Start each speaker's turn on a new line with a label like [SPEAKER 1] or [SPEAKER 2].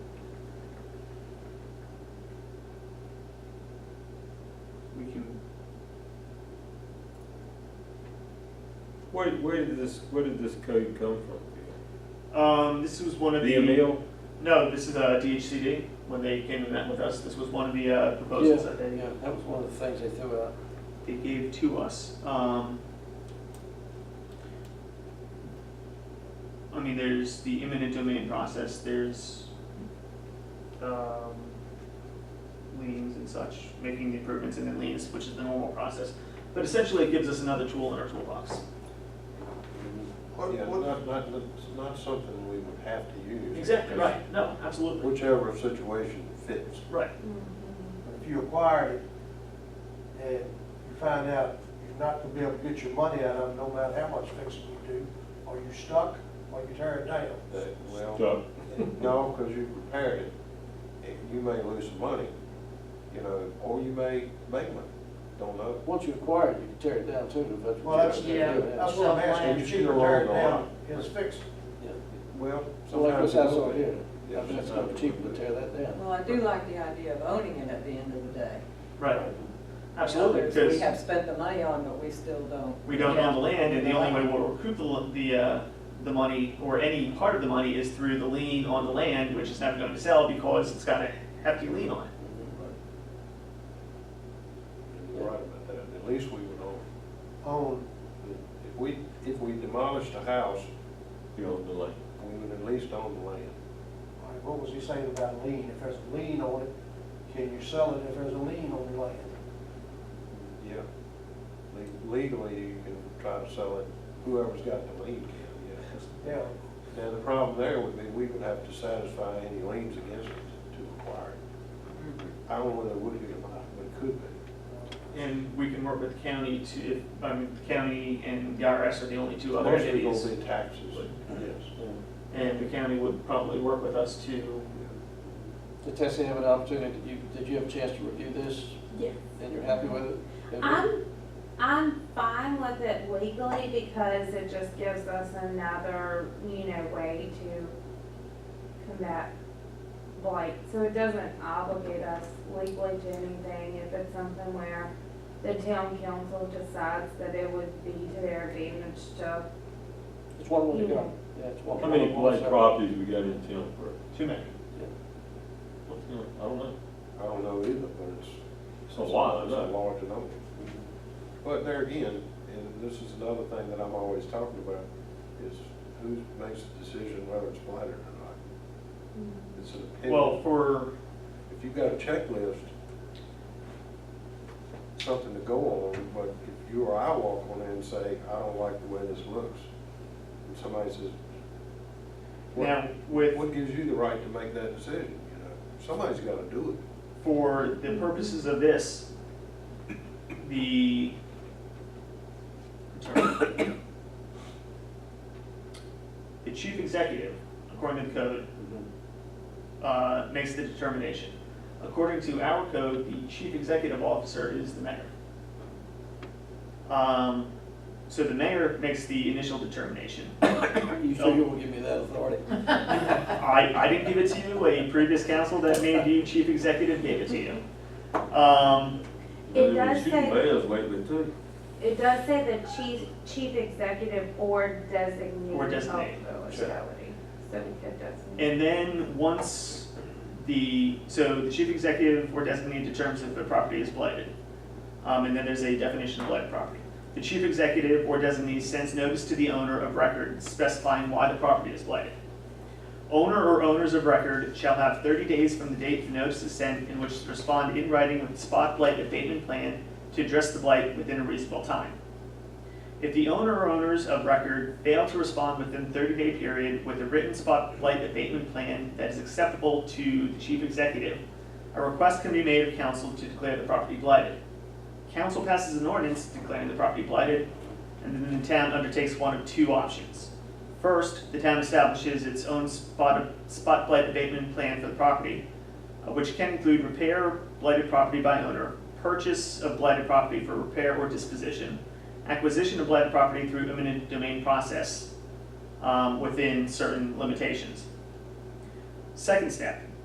[SPEAKER 1] where, where did this, where did this code come from?
[SPEAKER 2] Um, this was one of the.
[SPEAKER 1] The email?
[SPEAKER 2] No, this is uh, DHCD. When they came and met with us, this was one of the uh, proposals that they,
[SPEAKER 3] Yeah, that was one of the things they threw out.
[SPEAKER 2] they gave to us. Um, I mean, there's the eminent domain process. There's um, liens and such, making the improvements and then liens, which is the normal process. But essentially, it gives us another tool in our toolbox.
[SPEAKER 4] What,
[SPEAKER 5] Yeah,
[SPEAKER 4] what,
[SPEAKER 5] not, not, not- not something we would have to use.
[SPEAKER 2] Exactly right. No, absolutely.
[SPEAKER 5] Whichever situation fits.
[SPEAKER 2] Right.
[SPEAKER 4] if you acquired it and you find out you're not gonna be able to get your money out of it, no matter how much fixing you do, are you stuck or you tear it down?
[SPEAKER 5] that- Well,
[SPEAKER 1] Stop.
[SPEAKER 5] no, because you repaired it, and you may lose some money, you know, or you may make money, don't know.
[SPEAKER 3] Once you acquire it, you can tear it down too, but.
[SPEAKER 4] Well, that's,
[SPEAKER 6] Yeah.
[SPEAKER 4] that's what I'm asking, you should tear it down, it's fixed.
[SPEAKER 5] Well,
[SPEAKER 3] So like
[SPEAKER 5] sometimes
[SPEAKER 3] this
[SPEAKER 5] you
[SPEAKER 3] house
[SPEAKER 5] will
[SPEAKER 3] over
[SPEAKER 5] be.
[SPEAKER 3] here,
[SPEAKER 5] Yeah,
[SPEAKER 3] I mean, it's
[SPEAKER 5] sometimes
[SPEAKER 3] gonna be
[SPEAKER 5] you
[SPEAKER 3] cheaper
[SPEAKER 5] will
[SPEAKER 3] to
[SPEAKER 5] be.
[SPEAKER 3] tear that down.
[SPEAKER 6] Well, I do like the idea of owning it at the end of the day.
[SPEAKER 2] Right. Absolutely.
[SPEAKER 6] Others,
[SPEAKER 2] because-
[SPEAKER 6] We have spent the money on, but we still don't.
[SPEAKER 2] we don't own the land, and the only way we'll recoup the, l- the, uh, the money, or any part of the money, is through the lien on the land, which is never going to sell because it's got a hefty lien on it.
[SPEAKER 5] You're right about that, at least we would own.
[SPEAKER 4] Own,
[SPEAKER 5] it. If we, if we demolished the house,
[SPEAKER 1] You own the land.
[SPEAKER 5] we would at least own the land.
[SPEAKER 4] all right, what was he saying about lien? If there's a lien on it, can you sell it if there's a lien on the land?
[SPEAKER 5] Yeah. Le- Legally, you can try to sell it, whoever's got the lien can,
[SPEAKER 4] Yeah,
[SPEAKER 5] yeah. Now, the problem there would be, we would have to satisfy any liens against it to acquire it. I don't know whether it would be or not, but it could be.
[SPEAKER 4] Uh,
[SPEAKER 2] And we can work with the county to, if, I mean, the county and the IRS are the only two other
[SPEAKER 5] Mostly
[SPEAKER 2] entities.
[SPEAKER 5] gonna be taxes, yes.
[SPEAKER 2] And the county would probably work with us to,
[SPEAKER 3] Did Tessie have an opportunity, did you, did you have a chance to review this,
[SPEAKER 7] Yes.
[SPEAKER 3] and you're happy with it? And
[SPEAKER 7] I'm, I'm fine with it legally because it just gives us another, you know, way to combat blight. So it doesn't obligate us legally to anything if it's something where the town council decides that it would be to their advantage to.
[SPEAKER 3] It's one way to go, yeah, it's one.
[SPEAKER 1] How many
[SPEAKER 3] one
[SPEAKER 1] blight
[SPEAKER 3] side.
[SPEAKER 1] properties we got in town for?
[SPEAKER 2] to make.
[SPEAKER 1] What's the- I don't know.
[SPEAKER 5] I don't know either, but it's.
[SPEAKER 1] It's a lot, I
[SPEAKER 5] It's a
[SPEAKER 1] know.
[SPEAKER 5] large number. But there again, and this is another thing that I'm always talking about, is who makes the decision whether it's blighted or not? It's an opinion.
[SPEAKER 2] Well, for,
[SPEAKER 5] If you've got a checklist, something to go on, but if you or I walk on in and say, I don't like the way this looks, and somebody says,
[SPEAKER 2] now,
[SPEAKER 5] what,
[SPEAKER 2] with.
[SPEAKER 5] what gives you the right to make that decision, you know? Somebody's gotta do it.
[SPEAKER 2] For the purposes of this, the the chief executive, according to the code, uh, makes the determination. According to our code, the chief executive officer is the mayor. Um, so the mayor makes the initial determination.
[SPEAKER 3] You sure you will give me that authority?
[SPEAKER 2] I, I didn't give it to you, a previous council that made you chief executive gave it to you. Um,
[SPEAKER 7] It does
[SPEAKER 1] Shooting
[SPEAKER 7] say,
[SPEAKER 1] Bells lately too.
[SPEAKER 7] it does say the chief, chief executive or designee
[SPEAKER 2] Or
[SPEAKER 7] of the
[SPEAKER 2] designate, sure.
[SPEAKER 7] locality. So we could designate.
[SPEAKER 2] and then once the, so the chief executive or designee determines if the property is blighted. Um, and then there's a definition of blighted property. The chief executive or designee sends notice to the owner of record specifying why the property is blighted. Owner or owners of record shall have thirty days from the date the notice is sent in which to respond in writing with a spot blight abatement plan to address the blight within a reasonable time. If the owner or owners of record fail to respond within thirty day period with a written spot blight abatement plan that is acceptable to the chief executive, a request can be made of council to declare the property blighted. Council passes an ordinance declaring the property blighted, and then the town undertakes one of two options. First, the town establishes its own spot, spot blight abatement plan for the property, uh, which can include repair of blighted property by owner, purchase of blighted property for repair or disposition, acquisition of blighted property through eminent domain process, um, within certain limitations. Second step,